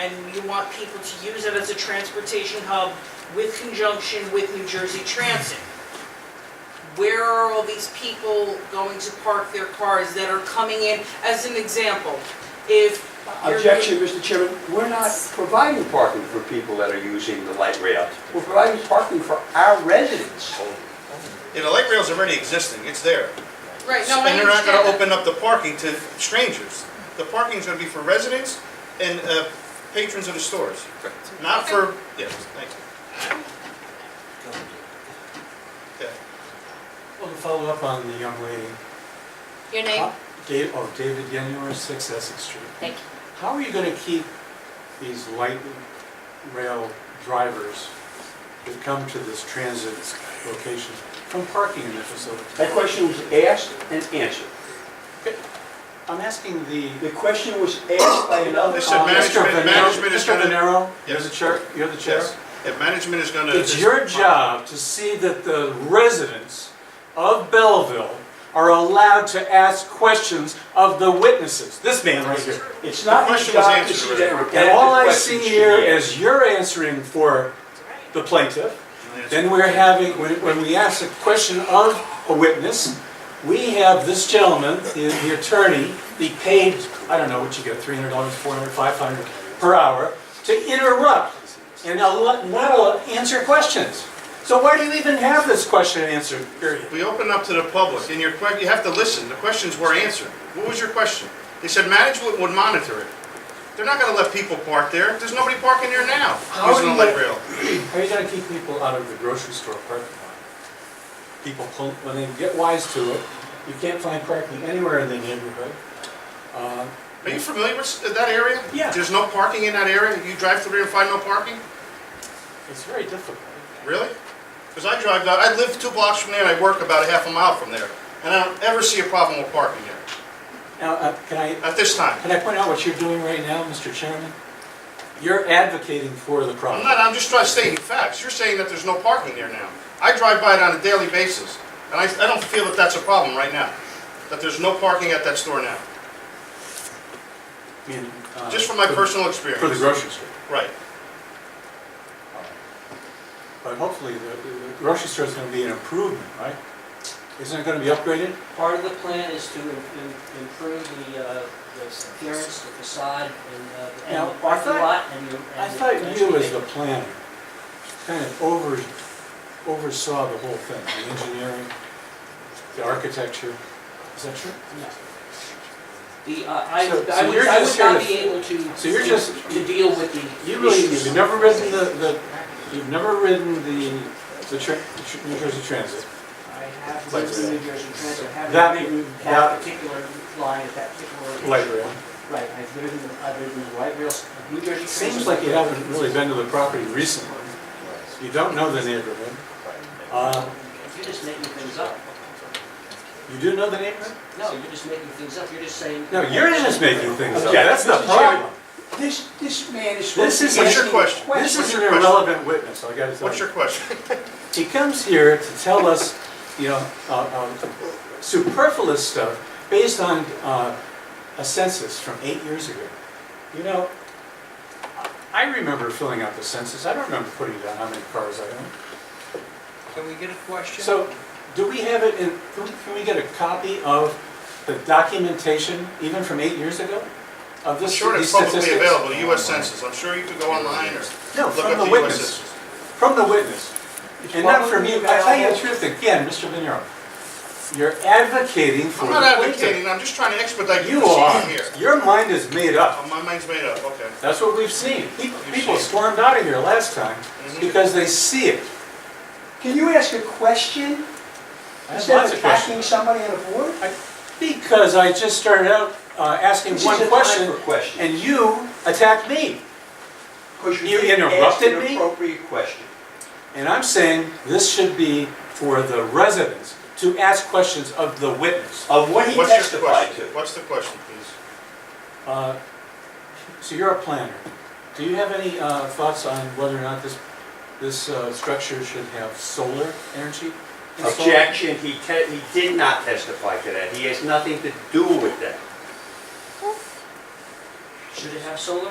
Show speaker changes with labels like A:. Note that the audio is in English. A: and you want people to use it as a transportation hub with conjunction with New Jersey Transit. Where are all these people going to park their cars that are coming in? As an example, if you're-
B: Objection, Mr. Chairman, we're not providing parking for people that are using the light rail. We're providing parking for our residents.
C: Oh.
D: Yeah, the light rail's already existing, it's there.
A: Right, no, I
D: And they're not
A: understand
D: gonna
A: that.
D: open up the parking to strangers. The parking's gonna be for residents and uh, patrons of the stores, not for, yes, thank you. Okay.
C: Well, to follow up on the young lady.
A: Your name?
C: how- Dave, oh, David Yenor, Six Essex Street.
A: Thank you.
C: How are you gonna keep these light rail drivers that come to this transit location from parking in the facility?
B: That question was asked and answered.
C: I'm asking the,
B: The question was asked by another.
D: They said
C: uh, Mr.
D: management-
C: Venero,
D: management is
C: Mr.
D: gonna-
C: Venero, you're the
D: Yes.
C: chair, you're the chair?
D: Yes, if management is gonna.
C: It's your job to see that the residents of Belleville are allowed to ask questions of the witnesses. This man right here.
B: It's not
D: The
B: your
D: question was
B: job to
D: answered
B: see
D: already.
B: that
C: And
B: repetitive
C: all I see
B: question
C: here
B: should be
C: is you're answering for the plaintiff. Then we're having, when when we ask a question of a witness, we have this gentleman, the the attorney, be paid, I don't know what you get, $300, $400, $500 per hour, to interrupt and al- not al- answer questions. So why do you even have this question and answer period?
D: We open up to the public, and your que, you have to listen, the questions were answered. What was your question? They said management would monitor it. They're not gonna let people park there, there's nobody parking there now, using
C: How are
D: the
C: you
D: light
C: gonna-
D: rail.
C: How are you gonna keep people out of the grocery store parking lot? People, pull- when they get wise to it, you can't find parking anywhere in the neighborhood. Uh,
D: Are you familiar with that area?
C: Yeah.
D: There's no parking in that area? You drive through there and find no parking?
C: It's very difficult.
D: Really? Because I drive down, I live two blocks from there and I work about a half a mile from there. And I don't ever see a problem with parking there,
C: Now, uh, can I,
D: at this time.
C: can I point out what you're doing right now, Mr. Chairman? You're advocating for the
D: I'm not,
C: problem.
D: I'm just trying to state facts. You're saying that there's no parking there now. I drive by it on a daily basis, and I, I don't feel that that's a problem right now, that there's no parking at that store now,
C: I mean, uh,
D: just from my
C: for-
D: personal
C: For the
D: experience.
C: grocery store.
D: Right.
C: But hopefully, the the grocery store is gonna be an improvement, right? Isn't it gonna be upgraded?
E: Part of the plan is to im- im- improve the, uh, the appearance, the facade, and, uh,
C: Now,
E: and the
C: I
E: parking
C: thought-
E: lot, and the. and
C: I
E: the-
C: thought you, as
E: and
C: the planner, kind of over, oversaw the whole thing, the engineering, the architecture. Is that true?
E: The, uh, I,
C: So- so
E: I would,
C: you're
E: I
C: just
E: would
C: here
E: not
C: to-
E: be able to.
C: so you're
E: to-
C: just-
E: To deal with the.
C: You really,
E: issues.
C: you've never ridden the, the, you've never ridden the, the tra- the tr- New Jersey Transit.
E: I have
C: Like
E: lived in New Jersey Transit, I
C: That-
E: haven't ridden
C: that-
E: uh, that particular line at that particular.
C: light rail.
E: Right, I've ridden, I've ridden the light rails, of New Jersey Transit.
C: Seems like you haven't really been to the property recently. You don't know the neighborhood. Uh,
E: You're just making things up.
C: You do know the neighborhood?
E: No, you're just making things up, you're just saying.
C: No, you're just making things up.
B: Okay.
C: That's the
B: Mr. Chairman,
C: problem.
B: This, this man is.
C: This
B: supposed
C: is-
B: to be
C: what's your
B: asking
D: question?
C: This
B: questions.
C: is an
D: your question? Oh,
C: irrelevant witness, I gotta tell
D: What's your
C: you.
D: question?
C: He comes here to tell us, you know, uh, um, superfluous stuff based on uh, a census from eight years ago. You know, I I remember filling out the census. I don't remember putting down how many cars I own.
F: Can we get a question?
C: So, do we have it in, can we- can we get a copy of the documentation, even from eight years ago? Of
D: I'm
C: this,
D: sure
C: these
D: it's publicly
C: statistics?
D: available, the US Census, I'm sure you could go online or
C: No,
D: look
C: from
D: up
C: the
D: the US
C: witness,
D: Census.
C: from the witness. And not from
F: publicly
C: you, I tell you the
F: available.
C: truth again, Mr. Venero, you're advocating for
D: I'm
C: the
D: not
C: plaintiff.
D: advocating, I'm just trying to expedite the
C: You are,
D: proceeding here.
C: your mind is made up,
D: Oh, My mind's made up, okay.
C: that's what we've seen. Pe-
D: You've
C: People
D: seen it.
C: stormed out of here last time
D: Mhm.
C: because they see it.
B: Can you ask a question
C: I have
B: instead
C: lots
B: of
C: of questions.
B: attacking somebody on a board?
C: Because I just started out uh, asking
B: This is
C: one
B: a time
C: question,
B: for questions.
C: and you attacked me.
B: Because
C: You
B: didn't ask
C: interrupted
B: an
C: me?
B: Appropriate question.
C: And I'm saying this should be for the residents to ask questions of the witness.
B: Of what he
D: What's your
B: testified
D: question?
B: to.
D: What's the question, please?
C: Uh, So you're a planner. Do you have any uh, thoughts on whether or not this, this uh, structure should have solar energy installed?
B: Objection, he te, he did not testify to that. He has nothing to do with that.
E: Should it have solar?